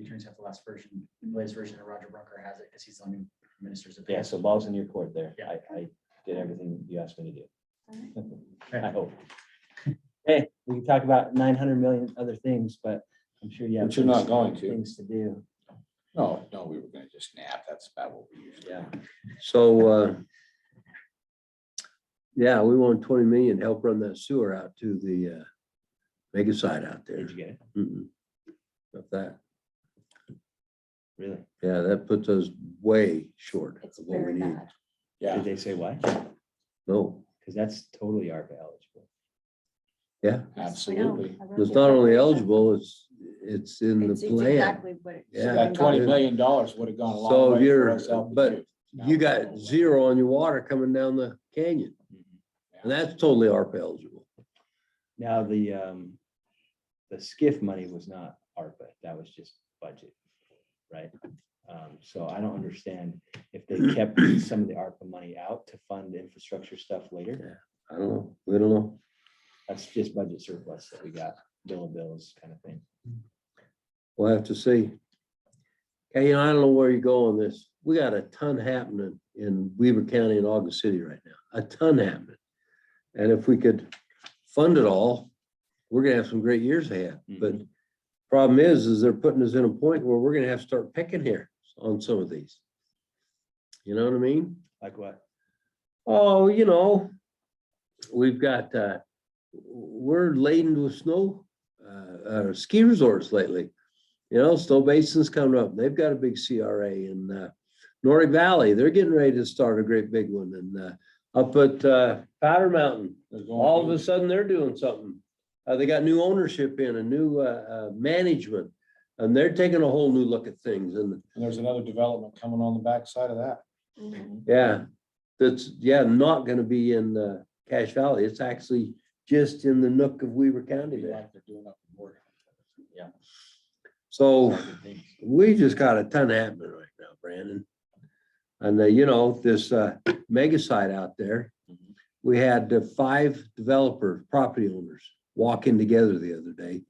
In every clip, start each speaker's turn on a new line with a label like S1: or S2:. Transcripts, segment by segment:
S1: attorneys have the last version, the latest version, and Roger Brunker has it because he's the one who ministers it.
S2: Yeah, so ball's in your court there.
S1: Yeah.
S2: I, I did everything you asked me to
S3: All right.
S2: do. I hope. Hey, we can talk about nine hundred million other things, but I'm sure you have.
S4: But you're not
S2: things-
S4: going to.
S2: Things to do.
S4: No, no, we were gonna just nap. That's about what we usually.
S2: Yeah.
S5: So, uh, yeah, we want twenty million, to help run that sewer out to the, uh, mega site out there.
S2: Did you get it?
S5: Mm-mm. Not that,
S2: Really?
S5: yeah, that puts us way short
S3: It's
S5: of what we
S3: very
S5: need.
S3: bad.
S4: Yeah,
S2: Did they say why?
S5: No,
S2: Because that's totally ARPA eligible.
S4: absolutely.
S3: I know. I wrote
S5: it's
S3: it
S5: not
S3: down.
S5: only eligible, it's, it's in the
S3: It's it's
S5: plan.
S3: exactly what it
S5: Yeah.
S3: should
S4: So
S3: have been
S4: That twenty
S3: done.
S4: million dollars would have gone a
S5: So
S4: long way
S5: you're-
S4: for us helping
S5: but
S4: you.
S5: You got zero on your water coming down the canyon,
S2: Mm-hmm.
S5: and that's totally ARPA eligible.
S2: Now, the, um, the SCIF money was not ARPA, that was just budget, right? Um, so I don't understand if they kept some of the ARPA money out to fund infrastructure stuff later.
S5: I don't know, we don't know.
S2: That's just budget surplus that we got, bill of bills kind of thing.
S5: We'll have to see. Hey, you know, I don't know where you go on this. We got a ton happening in Weaver County and August City right now, a ton happening. And if we could fund it all, we're gonna have some great years ahead. But problem is, is they're putting us in a point where we're gonna have to start picking here on some of these. You know what I mean?
S2: Like what?
S5: Oh, you know, we've got, uh, we're laden with snow, uh, uh, ski resorts lately. You know, Snow Basin's coming up. They've got a big CRA in, uh, Nordic Valley. They're getting ready to start a great big one and, uh, up at, uh, Powder Mountain. All of a sudden, they're doing something. Uh, they got new ownership in, a new, uh, uh, management. And they're taking a whole new look at things and,
S4: And there's another development coming on the backside of that.
S3: Mhm.
S5: yeah, that's, yeah, not gonna be in, uh, Cache Valley. It's actually just in the nook of Weaver County
S4: Be
S5: there.
S4: like they're doing up in Oregon.
S5: So
S4: Good things.
S5: we just got a ton happening right now, Brandon. And, uh, you know, this, uh, mega site out there,
S4: Mhm.
S5: we had uh, five developer, property owners walking together the other day.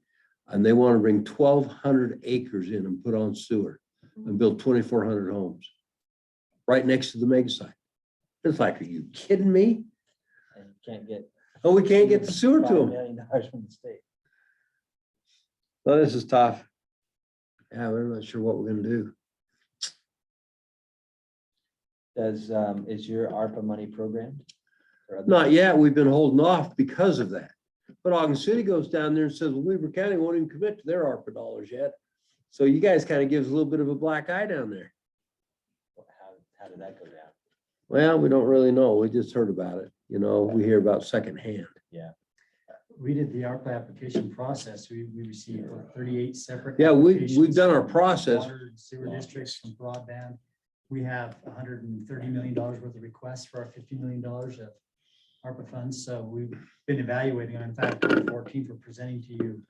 S5: And they want to bring twelve hundred acres in and put on sewer and build twenty-four hundred homes. Right next to the mega site. It's like, are you kidding me?
S2: And you Can't get.
S5: Oh, we can't get the sewer to
S2: $5
S5: them.
S2: Million dollars from the state.
S5: So this is tough. Yeah, we're not sure what we're gonna do.
S2: Does, um, is your ARPA money programmed? Or other-
S5: Not yet. We've been holding off because of that. But Ogden City goes down there and says, well, Weaver County won't even commit to their ARPA dollars yet. So you guys kind of gives a little bit of a black eye down there.
S2: How, how did that go down?
S5: Well, we don't really know. We just heard about it. You know, we hear about secondhand.
S1: We did the ARPA application process. We, we received what, thirty-eight separate.
S5: Yeah, we, we've
S1: applications
S5: done our
S1: from
S5: process.
S1: water and Sewer districts from broadband. We have hundred and thirty million dollars worth of requests for our fifty million dollars of ARPA funds. So we've been evaluating, and in fact, on the fourteenth, we're presenting to you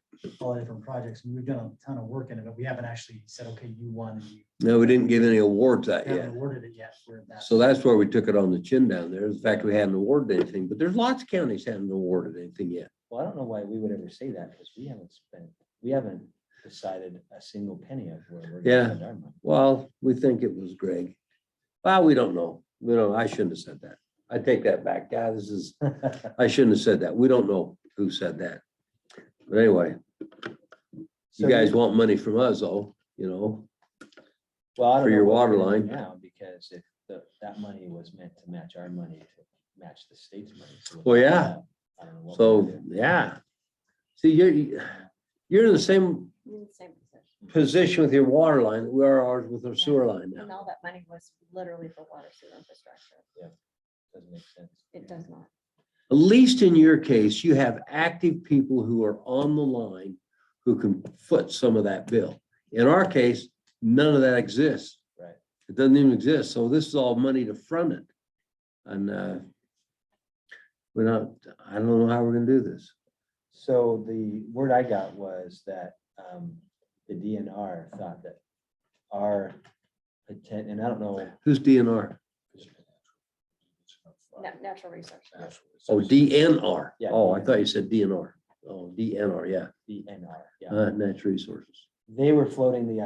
S1: all the different projects. And We've done a ton of work in it, but we haven't actually said, okay, you won, and you
S5: No, we didn't give any awards out
S1: haven't
S5: yet.
S1: awarded it yet. We're at that.
S5: So that's where we took it on the chin down there. In fact, we hadn't awarded anything, but there's lots of counties haven't awarded anything yet.
S2: Well, I don't know why we would ever say that because we haven't spent, we haven't decided a single penny of where we're. gonna
S5: Yeah.
S2: spend our money.
S5: Well, we think it was Greg. Well, we don't know. We don't, I shouldn't have said that. I take that back. God, this is, I shouldn't have said that. We don't know who said that. But anyway,
S2: So
S5: you guys want money from us though, you know?
S2: well, I don't
S5: for
S2: know
S5: your
S2: what we're
S5: water
S2: gonna do
S5: line.
S2: Now, because if the, that money was meant to match our money to match the state's money. so what
S5: Well,
S2: the
S5: yeah.
S2: hell? I don't know what we're
S5: So,
S2: gonna do.
S5: yeah. See, you're, you're in the same
S3: You're in the same position.
S5: position with your water line that we are ours with our sewer line
S3: And
S5: now.
S3: all that money was literally for water sewer infrastructure.
S2: Doesn't make sense.
S3: It does not.
S5: At least in your case, you have active people who are on the line who can foot some of that bill. In our case, none of that exists.
S2: Right.
S5: It doesn't even exist. So this is all money to front it. And uh, we're not, I don't know how we're gonna do this.
S2: So the word I got was that um, the DNR thought that our intent, and I don't know,
S5: Who's DNR?
S3: Na- Natural resources.
S5: Oh, DNR.
S2: Yeah.
S5: Oh, I thought you said DNR. Oh, DNR, yeah,
S2: DNR, yeah,
S5: Uh, natural resources.
S2: they were floating the idea